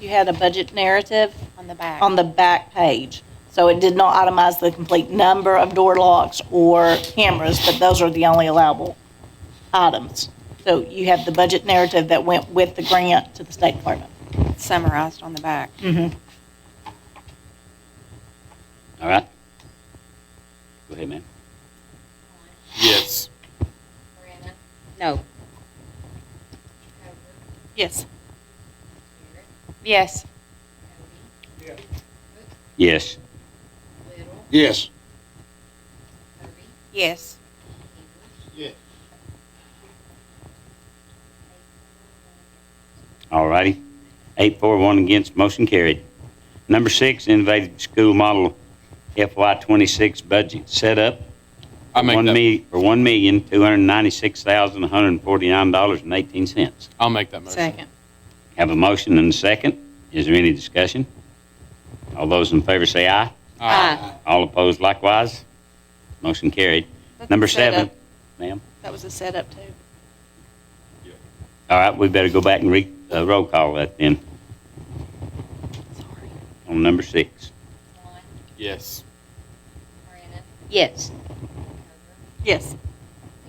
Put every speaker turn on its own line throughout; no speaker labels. You had a budget narrative
on the back.
on the back page. So it did not itemize the complete number of door locks or cameras, but those are the only allowable items. So you have the budget narrative that went with the grant to the State Department.
Summarized on the back.
Mm-hmm. All right. Go ahead, ma'am.
Yes.
Brandon,
No.
Coker,
Yes.
Garrett,
Yes.
Cody,
Yes.
Little,
Yes.
Kirby,
Yes.
English,
All righty. Eight, four, one against, motion carried. Number six, innovative school model FY twenty-six budget setup.
I make
one
that,
me- For one million, two hundred and ninety-six thousand, one hundred and forty-nine dollars and eighteen cents.
I'll make that motion.
Have a motion and a second. Is there any discussion? All those in favor say aye.
Aye.
All opposed likewise. Motion carried. Number seven, ma'am.
That was a setup too.
All right, we better go back and re, uh, roll call that then
Sorry.
on number six.
Swan,
Yes.
Brandon,
Yes.
Coker,
Yes.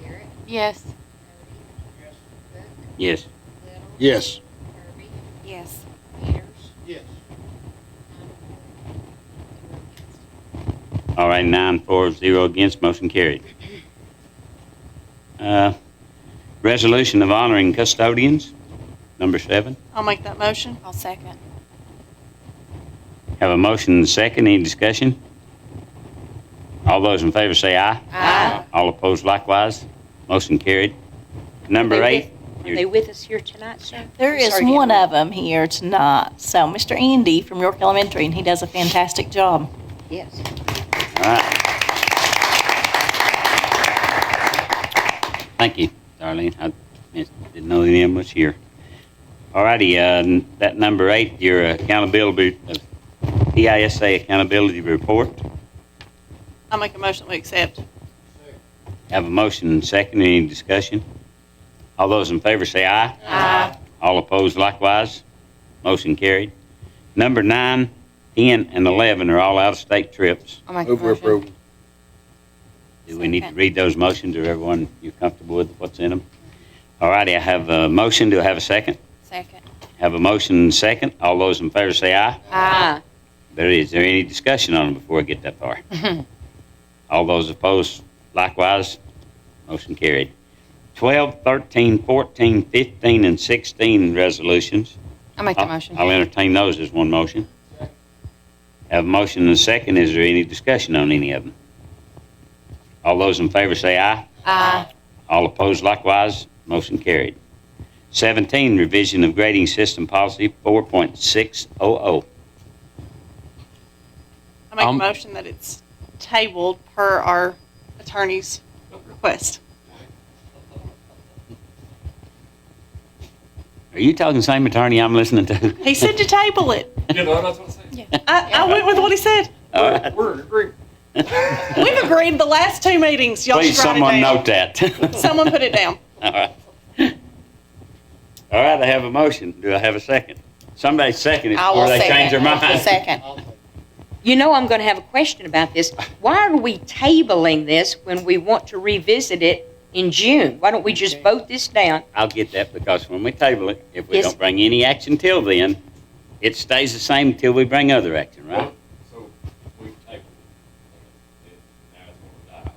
Garrett,
Yes.
Cody, Cook,
Yes.
Little,
Yes.
Kirby,
Yes.
Peters,
Yes.
nine for, two against.
All right, nine, four, zero against, motion carried. Uh, Resolution of honoring custodians, number seven.
I'll make that motion. I'll second.
Have a motion and a second, any discussion? All those in favor say aye.
Aye.
All opposed likewise, motion carried. Number
They
eight,
with- Are they with us here tonight, sir?
There is
Sorry to
one
interrupt.
of them here tonight. So Mr. Andy from York Elementary, and he does a fantastic job.
Yes.
all right. Thank you, Darlene, I missed- didn't know any of them was here. All righty, uh, n- that number eight, your accountability, uh, PISA accountability report.
I'll make a motion we accept.
Have a motion and second. Any discussion? All those in favor say aye.
Aye.
All opposed likewise. Motion carried. Number nine, 10, and 11 are all out-of-state trips.
I'll make a
Move for
motion.
approval.
Do we need to read those motions or everyone, you're comfortable with what's in them? All righty, I have a motion. Do I have a second?
Second.
Have a motion and second. All those in favor say aye.
Aye.
There is there any discussion on them before I get that far? All those opposed, likewise, motion carried. 12, 13, 14, 15, and 16 resolutions.
I'll make
I'll- I'll entertain those as one motion. Have a motion and a second. Is there any discussion on any of them? All those in favor say aye.
Aye.
All opposed likewise, motion carried. 17, revision of grading system policy 4.600.
I'll make a
Um,
motion that it's tabled per our attorney's request.
Are you talking the same attorney I'm listening to?
He said to table it.
You know, that's what I'm saying.
I, I went with what he said.
All right.
We're in agreement.
We've agreed the last two meetings. Y'all
Please,
should write
someone
it down.
note that.
Someone put it down.
All right. All right, I have a motion. Do I have a second? Somebody second it
I
before
will
they change their
second.
mind.
Second.
You know I'm going to have a question about this. Why are we tabling this when we want to revisit it in June? Why don't we just vote this down?
I'll get that because when we table it, if we
Yes.
don't bring any action till then, it stays the same till we bring other action, right?
So we've tabled it. and Now it's gonna die.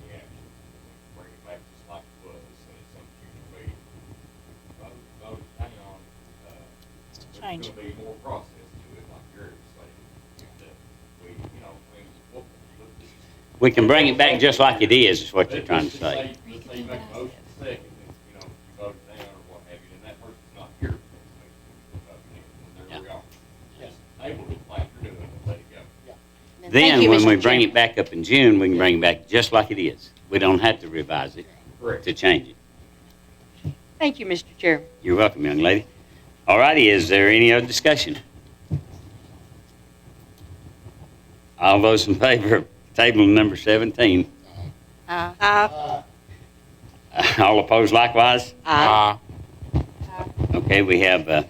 We'll take the action. We'll Bring it back just like it was. And it's some future meeting. Vote, vote, hang on. uh,
change.
There's gonna be more process to it, like you're saying. That we, you know, things. we'll- we'll-
We can bring it back just like it is, is what you're
let's
trying to
just
say.
Let's say you make a motion second, and, you know, you vote it down or what have you, then that person's not here. for the next meeting, so vote it in, and There we are. Just table it like you're doing and let it go.
Then,
Thank you,
when
Mr.
we bring
Chairman.
it back up in June, we can bring it back just like it is. We don't have to revise it
Correct.
to change it.
Thank you, Mr. Chairman.
You're welcome, young lady. All righty, is there any other discussion? All those in favor of table number 17,
Aye.
all opposed likewise?
Aye.
Okay, we have uh,